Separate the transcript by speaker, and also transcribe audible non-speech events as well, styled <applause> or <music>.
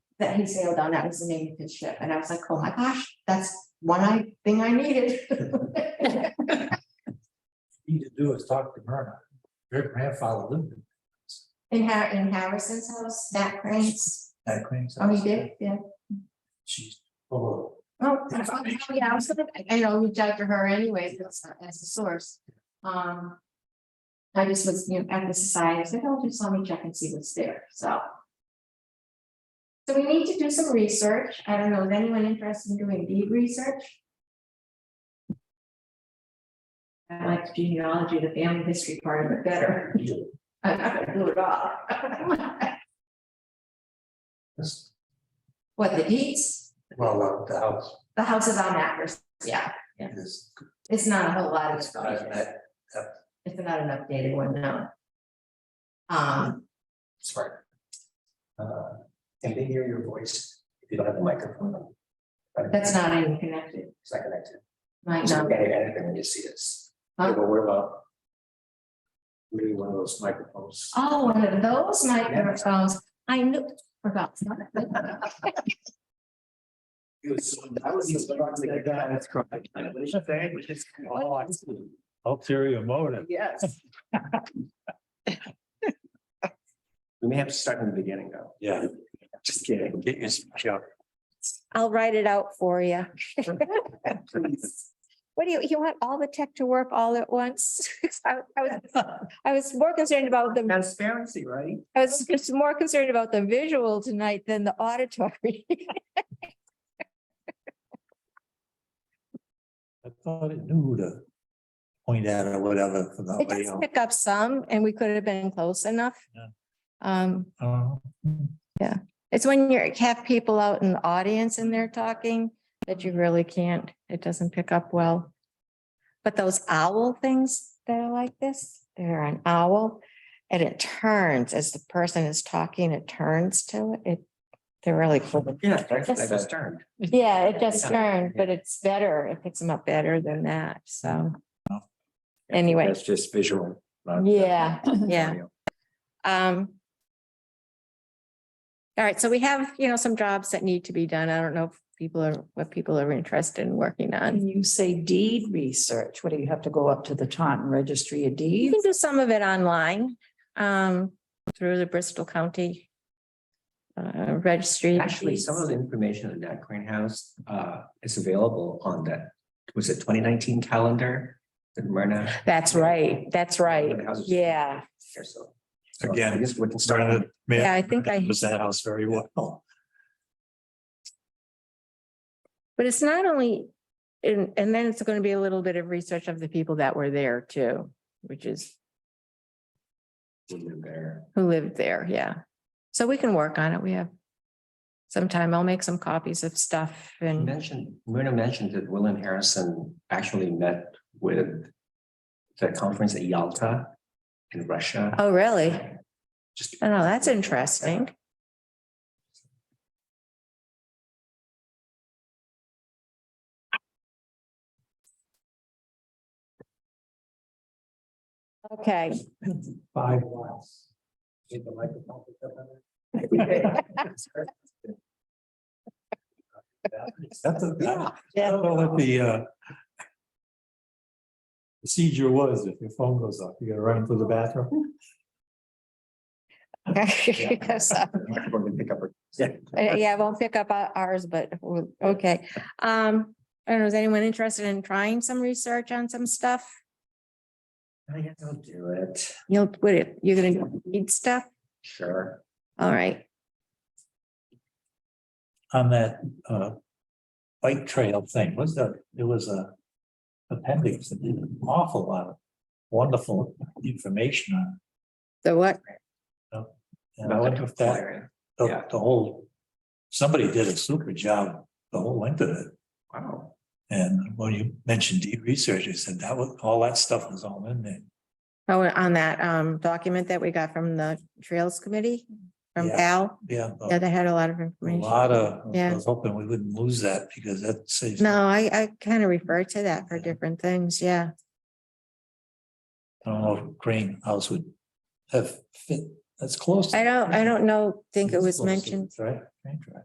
Speaker 1: that he sailed on, that was the name of his ship, and I was like, oh my gosh, that's one I, thing I needed.
Speaker 2: Need to do is talk to Myrna. Her grandfather lived in
Speaker 1: In Har- in Harrison's house, that cranes,
Speaker 2: that Queens.
Speaker 1: oh, he did, yeah.
Speaker 2: She's full
Speaker 1: Oh, oh, yeah, I was gonna, I- I know, reach out to her anyway, as as a source. Um. I just was, you know, at the society, I said, oh, just let me check and see what's there, so. So we need to do some research. I don't know, is anyone interested in doing deep research? I like the genealogy, the family history part of it better. <laughs>
Speaker 2: of.
Speaker 1: I'm not gonna do it all.
Speaker 2: This-
Speaker 1: <laughs> What, the deeds?
Speaker 2: Well, uh, the house
Speaker 1: The houses on Acres, yeah,
Speaker 2: is,
Speaker 1: it's not a whole lot of.
Speaker 2: it's not that,
Speaker 1: It's not an updated one, no. Um,
Speaker 2: sorry. Uh, Can they hear your voice if you don't have the microphone? on?
Speaker 1: that's not even connected,
Speaker 2: It's not connected.
Speaker 1: might
Speaker 2: So
Speaker 1: not
Speaker 2: you
Speaker 1: be.
Speaker 2: can't hear anything when you see this.
Speaker 1: Huh?
Speaker 2: Yeah, But what about? Maybe one of those microphones.
Speaker 1: Oh, one of those microphones, I knew, forgot.
Speaker 2: It was so- I was just like, like, God, that's correct. Oh, I see.
Speaker 3: Ulterior motive.
Speaker 2: Yes. <laughs> We may have to start from the beginning, though. Yeah. Just kidding. Get your shot.
Speaker 4: I'll write it out for you. What do you, you want all the tech to work all at once? <laughs> I I was, I was more concerned about the,
Speaker 2: Transparency, right?
Speaker 4: I was just more concerned about the visual tonight than the auditory. <laughs>
Speaker 3: I thought it knew who to point at or whatever for the
Speaker 4: It does
Speaker 3: audio.
Speaker 4: pick up some and we could have been close enough.
Speaker 3: Yeah.
Speaker 4: Um,
Speaker 3: Oh,
Speaker 4: it's when you have people out in the audience and they're talking that you really can't, it doesn't pick up well. But those owl things that are like this, they're an owl and it turns as the person is talking, it turns to it. It, they're really cool.
Speaker 2: Yeah.
Speaker 4: Yes.
Speaker 2: That's turned.
Speaker 4: Yeah, it just
Speaker 2: Yeah.
Speaker 4: turned, but it's better. It picks them up better than that. So
Speaker 3: Oh.
Speaker 4: anyway,
Speaker 2: That's just visual. not-
Speaker 4: yeah, yeah.
Speaker 2: audio.
Speaker 4: Um. All right, so we have, you know, some jobs that need to be done. I don't know if people are, what people are interested in working on.
Speaker 5: And you say deed research, what do you have to go up to the Taunton Registry of
Speaker 4: You
Speaker 5: Deeds?
Speaker 4: can do some of it online, um, through the Bristol County. Uh, registry. of
Speaker 2: Actually, some of
Speaker 4: Deeds.
Speaker 2: the information in that greenhouse uh is available on that, was it twenty nineteen calendar? That Myrna.
Speaker 4: That's right, that's right.
Speaker 2: Greenhouses.
Speaker 4: Yeah,
Speaker 2: Here, so- so I
Speaker 3: Again,
Speaker 2: guess we can start on
Speaker 3: started.
Speaker 4: Yeah, I think I-
Speaker 3: Was that house very well.
Speaker 4: but it's not only, and, and then it's gonna be a little bit of research of the people that were there too, which is
Speaker 2: there.
Speaker 4: who lived there, yeah. So we can work on it. We have some time. I'll make some copies of stuff
Speaker 2: You
Speaker 4: and,
Speaker 2: mentioned, Myrna mentioned that Will and Harrison actually met with the conference at Yalta in Russia.
Speaker 4: oh, really?
Speaker 2: <laughs> Just.
Speaker 4: Oh, no, that's interesting. Okay,
Speaker 2: Five miles. Get the microphone picked up on it. <laughs>
Speaker 3: That's a,
Speaker 2: Yeah.
Speaker 3: I don't know what the uh. Procedure was if your phone goes off, you gotta run into the bathroom.
Speaker 4: So,
Speaker 2: We're gonna pick up her-
Speaker 4: uh, <laughs> Yeah, I won't pick up o- ours, but we'll- okay. Um, I don't know, is anyone interested in trying some research on some stuff?
Speaker 2: I guess I'll do it,
Speaker 4: You'll, would it, you're gonna need stuff?
Speaker 2: sure.
Speaker 4: All right.
Speaker 3: On that uh. Bike trail thing, was that, there was a. Appendix that did an awful lot of wonderful information on.
Speaker 4: The what?
Speaker 3: it. And I wonder if that the,
Speaker 2: Yeah.
Speaker 3: the whole, somebody did a super job the whole length of it.
Speaker 2: Wow,
Speaker 3: And when you mentioned deep research, you said that was, all that stuff was all in there.
Speaker 4: Oh, on that um document that we got from the Trails Committee, from
Speaker 3: Yeah.
Speaker 4: Al,
Speaker 3: Yeah,
Speaker 4: yeah,
Speaker 3: a
Speaker 4: they had a lot of information.
Speaker 3: lot of, I
Speaker 4: Yeah.
Speaker 3: was hoping we wouldn't lose that because that saves.
Speaker 4: No, I I kind of refer to that for
Speaker 3: Yeah.
Speaker 4: different things, yeah.
Speaker 3: I don't know if greenhouse would have fit, that's close.
Speaker 4: I don't, I don't know, think it was mentioned.
Speaker 3: Right? Train track.